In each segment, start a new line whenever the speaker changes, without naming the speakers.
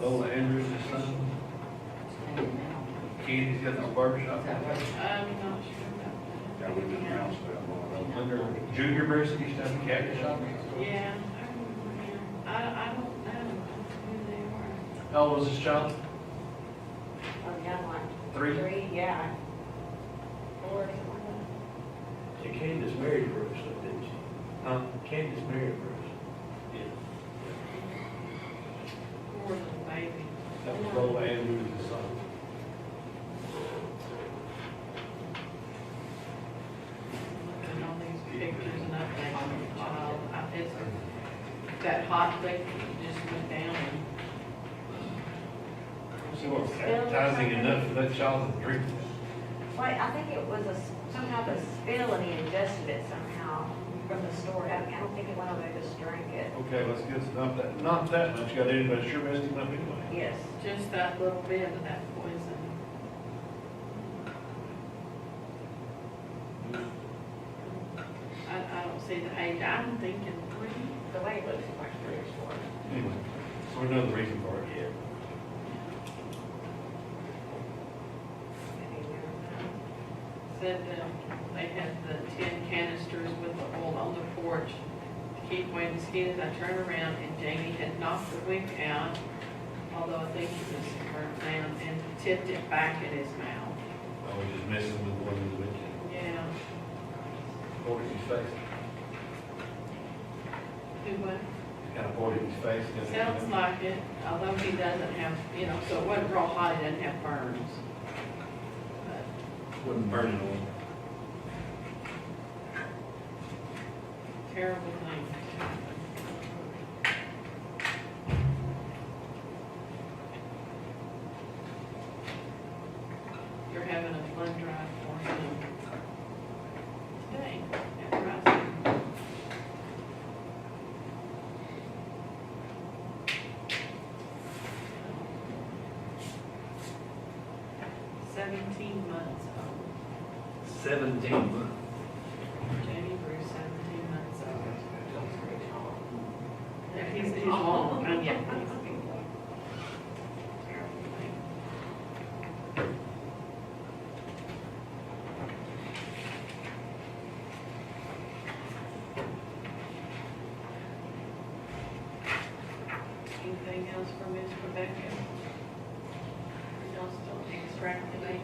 Lola Andrews is son, Katie's got the barbershop.
I'm not sure
Yeah, we just announced that. Under junior varsity stuff, khaki shop.
about, yeah, I remember here. I, I don't know who they were.
How old is this child?
Oh, young one.
Three?
Three, yeah. Four, something.
See, Candace married Bruce, though, didn't she?
Huh?
Candace married Bruce.
Poor little baby.
That was Lola Andrews' son.
Looking on these pictures and I think, wow, I just, that hot liquor just went down and.
So we're advertising enough for that child to drink this.
Wait, I think it was a, s- somehow the spill and he ingested it somehow from the store. I mean, I don't think he went over there to just drank it.
Okay, let's get some, not that, not that much, got anybody sure messed him up anyway.
Yes.
Just that little bit of that poison. I, I don't see the age, I'm thinking three.
The way it looks like three or four.
Anyway, so we know the reason for it yet.
Maybe there.
Said that they had the tin canisters with the oil on the porch to keep away mosquitoes. I turned around and Jamie had knocked the wing out, although I think it was burnt down, and tipped it back in his mouth.
I was just messing with one of the weekend.
Yeah,
Poured it in his face,
who was?
kind of poured it in his face. and then-
Sounds like it, although he doesn't have, you know, so it wasn't real hot, he doesn't have burns. But
Wasn't burning on.
Terrible thing. You're having a blood drive for him. Today, at Rising. Seventeen months old.
Seventeen months.
Jamie Bruce, seventeen months old. He's, he's long, I mean, he's Anything else for Ms. Rebecca? Or Y'all still extracting it?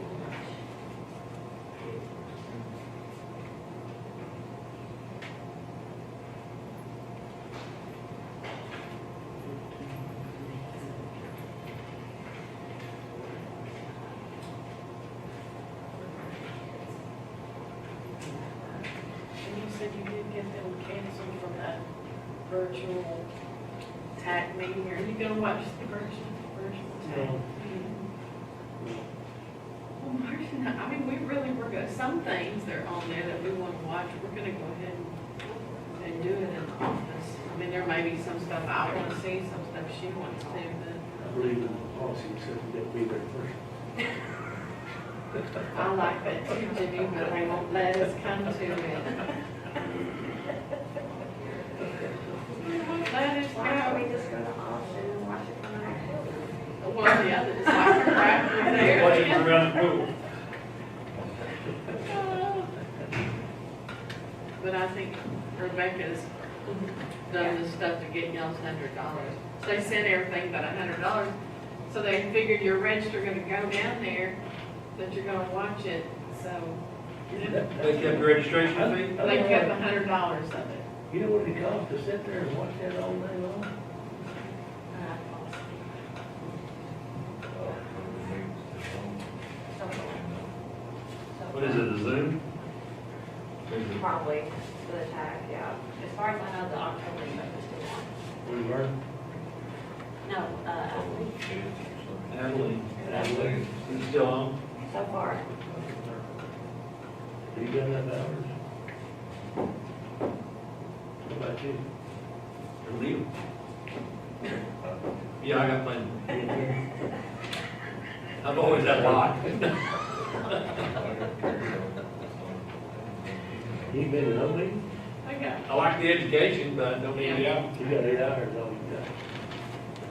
And you said you did get them canceled from that virtual TAC meeting, are you gonna watch the virtual, virtual TAC? meeting? Well, Martin, I mean, we really were good, some things that are on there that we wanna watch, we're gonna go ahead and- and do it in the office. I mean, there may be some stuff I wanna see, some stuff she wants to, but
I believe in the policy, except that we were first.
I like that too, Jimmy, but they won't let us come to it. They won't Let us
Why
go.
don't we just go to Austin and watch it from our children?
One or the other, it's like a crack over
Watching
there.
around the pool.
But I think Rebecca's done this stuff to get y'all's hundred dollars. So they sent everything but a hundred dollars, so they figured your rents are gonna go down there, that you're gonna watch it, so.
They kept the registration fee?
They kept a hundred dollars of it.
You know what it costs to sit there and watch that all day long?
What is it, a Zoom?
Probably for the tag, yeah. As far as I know, the October is still on.
We were.
No, uh,
Adeline. Adeline. You still on?
so far,
Have you done that hours? What about you?
Leave. Yeah, I got plenty. I'm always that lot.
You been in no meeting?
I got,
I like the education, but I don't need it.
You got eight hours, all you got.